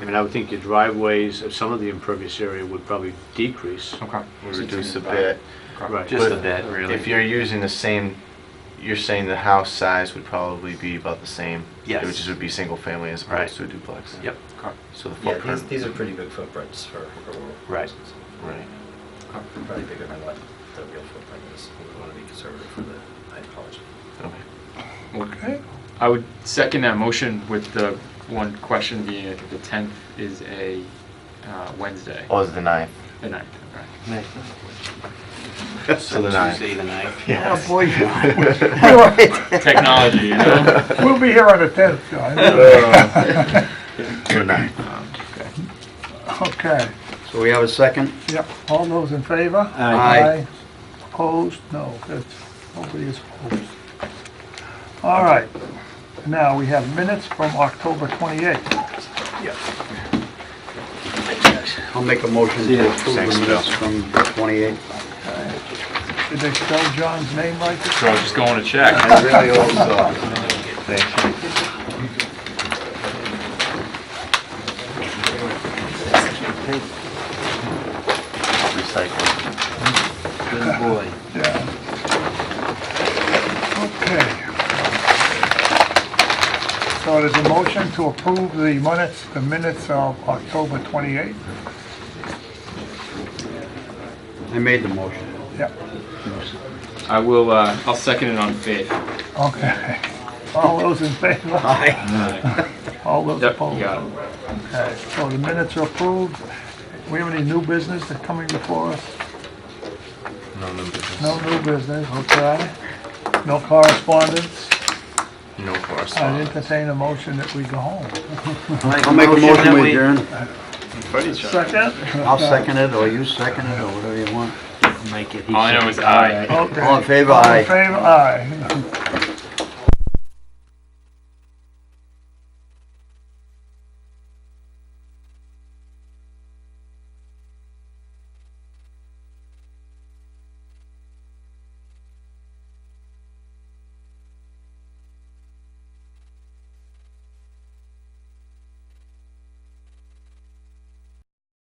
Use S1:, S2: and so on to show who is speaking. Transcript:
S1: I mean, I would think your driveways, uh, some of the impervious area would probably decrease.
S2: Okay.
S3: reduce a
S2: Okay.
S3: bit.
S1: Right.
S4: Just a
S3: But
S4: bit, really.
S3: If you're using the same, you're saying the house size would probably be about the same.
S4: Yes.
S3: Which would be single family as
S4: Right.
S3: opposed to a duplex.
S4: Yep,
S2: Okay.
S3: So the
S5: Yeah, these,
S3: footprint.
S5: these are pretty big footprints for. for rural
S4: Right.
S5: houses.
S3: Right.
S2: Okay.
S5: Probably bigger than what the real footprint is. We want to be conservative for the, I apologize.
S3: Okay.
S2: Okay. I would second that motion with the one question being, I think the 10th is a uh, Wednesday,
S3: Oh, it's the ninth.
S2: the 9th, okay.
S3: So the ninth.
S4: Tuesday the ninth.
S3: Yes.
S6: Oh, boy.
S2: Technology, you know?
S6: We'll be here on the 10th,
S3: Uh.
S6: guys.
S3: The ninth.
S2: Um, okay.
S6: Okay,
S7: So we have a second?
S6: yep, all those in favor?
S7: Aye. Aye.
S6: Opposed? No, that's, nobody is opposed. All right, now we have minutes from October 28th.
S7: I'll make a motion to approve
S3: Thanks,
S7: the
S3: Bill.
S7: minutes from the 28th.
S6: Did they spell John's name right?
S2: So I'm just going to check.
S3: I really hope so. Thank you. Recycle.
S7: Good boy.
S6: Okay. So there's a motion to approve the minutes, the minutes of October 28th.
S7: I made the motion.
S6: Yep,
S2: I will, uh, I'll second it on faith.
S6: okay. All those in favor?
S2: Yep,
S6: All those
S2: you
S6: opposed?
S2: got it.
S6: Okay, so the minutes are approved. We have any new business that's coming before us?
S3: No new business.
S6: No new business, okay. No correspondence.
S3: No
S6: I
S3: correspondence.
S6: entertain a motion that we go home.
S7: I'll make a motion
S4: that
S7: we
S4: we-
S7: adjourn.
S6: Second?
S7: I'll second it, or you second it, or whatever you want.
S4: Make it.
S2: All I know is aye.
S6: Okay.
S7: All in favor,
S6: All in
S7: aye.
S6: favor, aye.